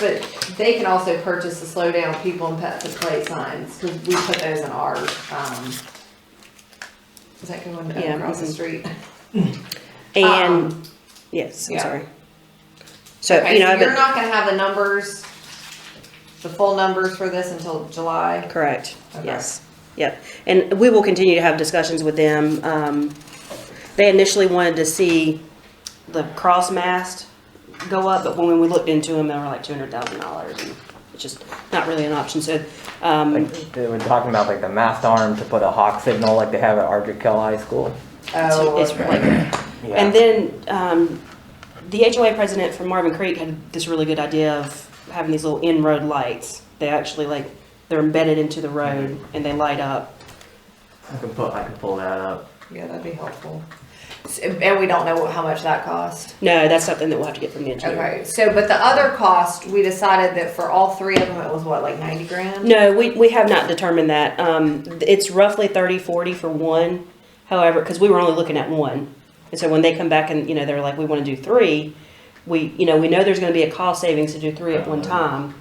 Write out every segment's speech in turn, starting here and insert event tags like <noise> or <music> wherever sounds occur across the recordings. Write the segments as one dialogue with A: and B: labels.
A: but they can also purchase the slow down people and pets at plate signs, cause we put those in our, um, is that going
B: Yeah,
A: across the
B: mhm.
A: street?
B: And, yes, I'm
A: Um, yeah.
B: sorry. So,
A: Okay,
B: you
A: so
B: know,
A: you're
B: <laughs> but,
A: not gonna have the numbers, the full numbers for this until July?
B: correct,
A: Okay.
B: yes, yep. And we will continue to have discussions with them. Um, they initially wanted to see the cross mast go up, but when we looked into them, they were like two hundred thousand dollars. and It's just not really an option, so, um,
C: Like, They were talking about like the mast arm to put a hawk signal like they have at Ardrick Hill High School.
A: Oh,
B: it's
A: okay.
B: like,
C: Yeah.
B: And then um, the HOA president from Marvin Creek had this really good idea of having these little in-road lights. They actually like they're embedded into the road and they light up.
C: I can put, I can pull that up.
A: Yeah, that'd be helpful. S- And we don't know how much that cost.
B: No, that's something that we'll have to get from the engineer.
A: Okay, so, but the other cost, we decided that for all three of them, it was what, like ninety grand?
B: No, we, we have not determined that. Um, it's roughly 30, 40 for one. However, because we were only looking at one. And so when they come back and, you know, they're like, we want to do three, we, you know, we know there's going to be a cost savings to do three at one time.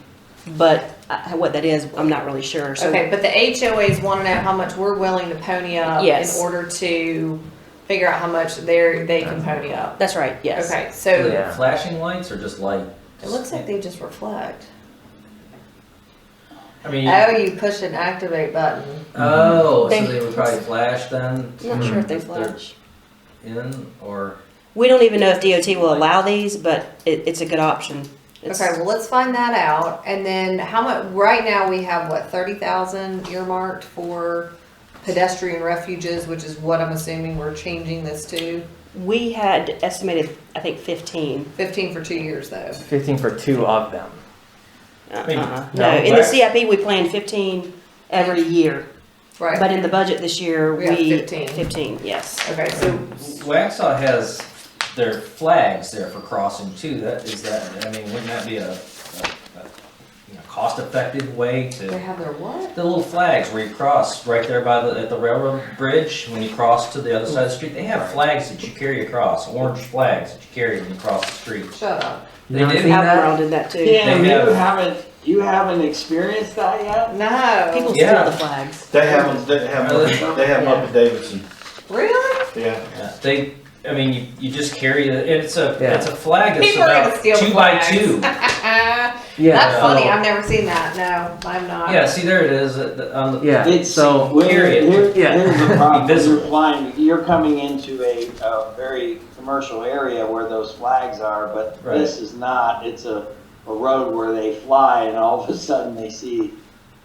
B: But uh, what that is, I'm not really sure. So
A: Okay, but the HOAs wanna know how much we're willing to pony up in
B: Yes.
A: order to figure out how much they're, they can pony up.
B: that's right. Yes.
A: Okay, so
C: Yeah.
D: Flashing lights or just light?
A: it looks like they just reflect.
D: I mean,
A: Oh, you push an activate button.
D: oh,
B: They-
D: so they would probably flash then
B: I'm not sure if they
D: If they're-
B: flush.
D: in or
B: We don't even know if DOT will allow these, but it, it's a good option. It's-
A: Okay, well, let's find that out, and then how much, right now, we have, what, thirty thousand earmarked for pedestrian refuges, which is what I'm assuming we're changing this to,
B: We had estimated, I think, fifteen.
A: fifteen for two years, though.
C: Fifteen for two of them.
D: mean,
B: Uh-uh.
D: no,
B: No, in the
D: last-
B: CIP, we plan fifteen every year, but
A: Right,
B: in the budget this year,
A: We
B: we.
A: have 15.
B: Fifteen, yes.
A: okay, so,
D: Waxaw has their flags there for crossing too. That is that. I mean, wouldn't that be a, a, a you know, cost-effective way
A: they
D: to?
A: have their what?
D: The little flags where you cross right there by the at the railroad bridge when you cross to the other side of the street. They have flags that you carry across, orange flags that you carry when you cross the street.
A: Shut up.
C: You
D: They
C: haven't
D: do?
C: seen that?
B: Outlaw did that too.
E: Yeah,
D: They
E: you
D: have-
E: haven't you haven't experienced that yet.
B: People
A: No,
B: steal
D: Yeah.
B: the flags.
F: They have, them- they have, them- they have them up at Davidson,
A: really?
F: yeah.
D: Yeah, They, I mean, you, you just carry it. It's a
C: Yeah.
D: it's a flag that's
A: People are gonna
D: about
A: steal
D: two by
A: flags. <laughs>
D: two. Oh.
A: That's
C: Yeah.
A: funny,
C: so-
A: I've never seen that, no, I'm not.
D: Yeah, see there it is uh, the- on the
C: Yeah,
E: It's
C: so,
E: well,
D: period.
E: here-
C: Yeah.
E: Here's the problem.
D: Invisible.
E: You're applying. You're coming into a, a very commercial area where those flags are, but
D: Right.
E: this is not. It's a, a road where they fly, and all of a sudden they see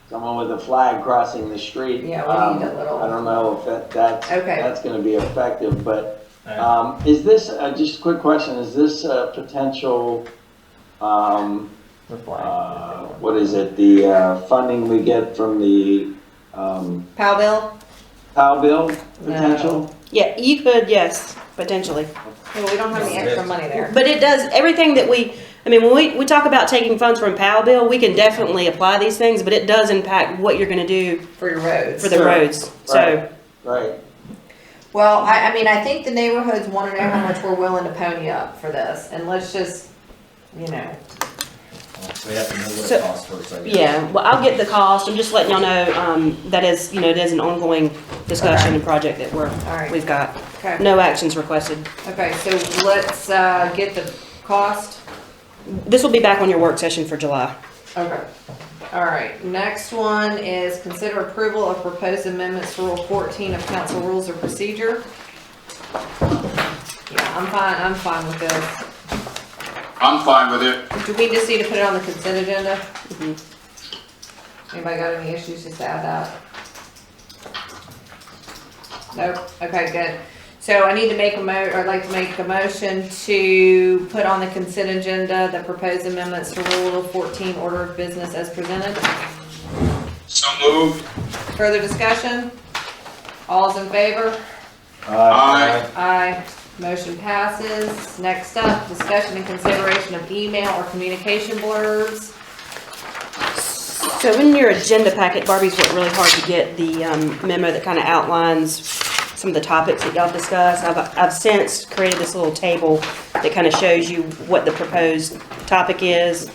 E: someone with a flag crossing the street.
A: Yeah, we need
E: Um,
A: a
E: I
A: little,
E: don't know if that, that's,
A: Okay.
E: that's gonna be effective, but,
D: Alright.
E: um, is this, uh, just a quick question, is this a potential, um,
C: the
E: uh,
C: flag.
E: what is it, the, uh, funding we get from the, um,
A: Powell bill?
E: POW bill potential?
B: Yeah, you could, yes, potentially.
A: Well, we don't have any extra money there.
B: But it does, everything that we, I mean, when we, we talk about taking funds from POW bill, we can definitely apply these things, but it does impact what you're gonna do
A: For your roads.
B: for the
E: Sure.
B: roads, so.
E: Right. Right,
A: Well, I, I mean, I think the neighborhoods wanna know how much we're willing to pony up for this, and let's just, you know,
D: So we have to know what
B: So-
D: it costs first, I guess.
B: Yeah, well, I'll get the cost, I'm just letting y'all know, um, that is, you know, it is an ongoing discussion and project that we're,
A: Alright.
B: we've got.
A: okay,
B: No actions requested.
A: okay, so let's, uh, get the cost.
B: This will be back on your work session for July.
A: Okay, all right, next one is consider approval of proposed amendments to Rule fourteen of council rules of procedure. Yeah, I'm fine, I'm fine with this.
G: I'm fine with it.
A: Do we just need to put it on the consent agenda? Anybody got any issues, just add that? Nope, okay, good. So I need to make a mo, or I'd like to make a motion to put on the consent agenda the proposed amendments to Rule fourteen, order of business as presented.
G: So moved.
A: Further discussion? All's in favor?
E: Uh,
G: Aye.
A: Aye. Motion passes. Next up, discussion and consideration of email or communication blurbs.
B: So in your agenda packet, Barbie's worked really hard to get the um, memo that kind of outlines some of the topics that y'all discussed. I've, I've since created this little table that kind of shows you what the proposed topic is,